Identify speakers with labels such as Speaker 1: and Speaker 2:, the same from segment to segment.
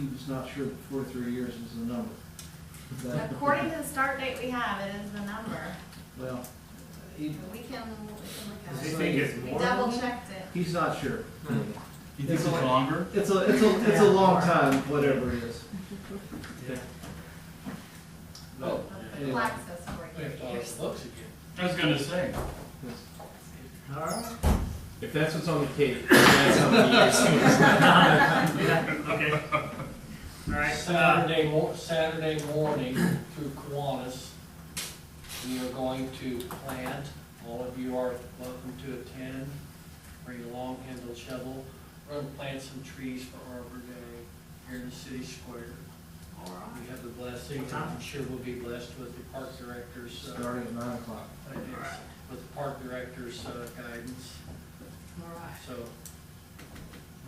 Speaker 1: He was not sure that forty-three years is the number. But-
Speaker 2: According to the start date we have, it is the number.
Speaker 1: Well, he,
Speaker 2: We can, we
Speaker 3: Does
Speaker 2: can
Speaker 3: he
Speaker 2: look
Speaker 3: think it's
Speaker 2: at it. We
Speaker 3: more?
Speaker 2: double checked it.
Speaker 1: he's not sure.
Speaker 4: You think it's longer?
Speaker 1: It's a, it's a, it's a long time, whatever it is. But
Speaker 2: The
Speaker 1: anyway,
Speaker 2: plaque says forty-three years.
Speaker 3: looks again.
Speaker 4: I was gonna say.
Speaker 1: it's-
Speaker 3: All right.
Speaker 5: If that's what's on the cake, that's how many years.
Speaker 3: Okay. All right, uh,
Speaker 6: Saturday, mo- Saturday morning through Kiwanis, we are going to plant. All of you are welcome to attend. Bring a long handled shovel. We're gonna plant some trees for Arbor Day here in the city square.
Speaker 3: all right.
Speaker 6: We have the blessing, and I'm sure we'll be blessed with the park director's, uh,
Speaker 1: Starting at nine o'clock.
Speaker 6: ideas, with the park director's uh, guidance.
Speaker 3: All right.
Speaker 6: So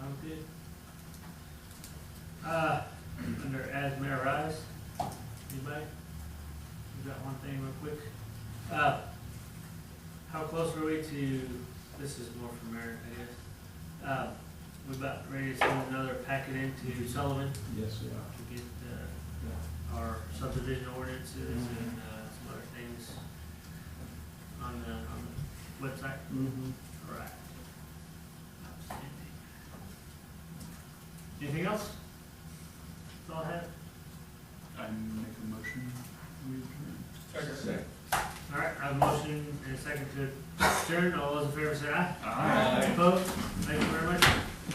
Speaker 3: Sounds good. Uh, under as mayor rise, anybody? We got one thing real quick. Uh, how close were we to, this is more for Merrick, I guess. Uh, we about ready to send another packet into Sullivan
Speaker 1: Yes, we
Speaker 3: to
Speaker 1: are.
Speaker 3: get, uh, our subdivision ordinances and, uh, some other things on the, on the website.
Speaker 1: Mm-hmm.
Speaker 3: Right. Anything else? That's all I have.
Speaker 4: I make a motion. we adjourn.
Speaker 3: All right, I have a motion and a second to adjourn. All those in favor say aye.
Speaker 4: Aye.
Speaker 3: Opposed? Thank you very much.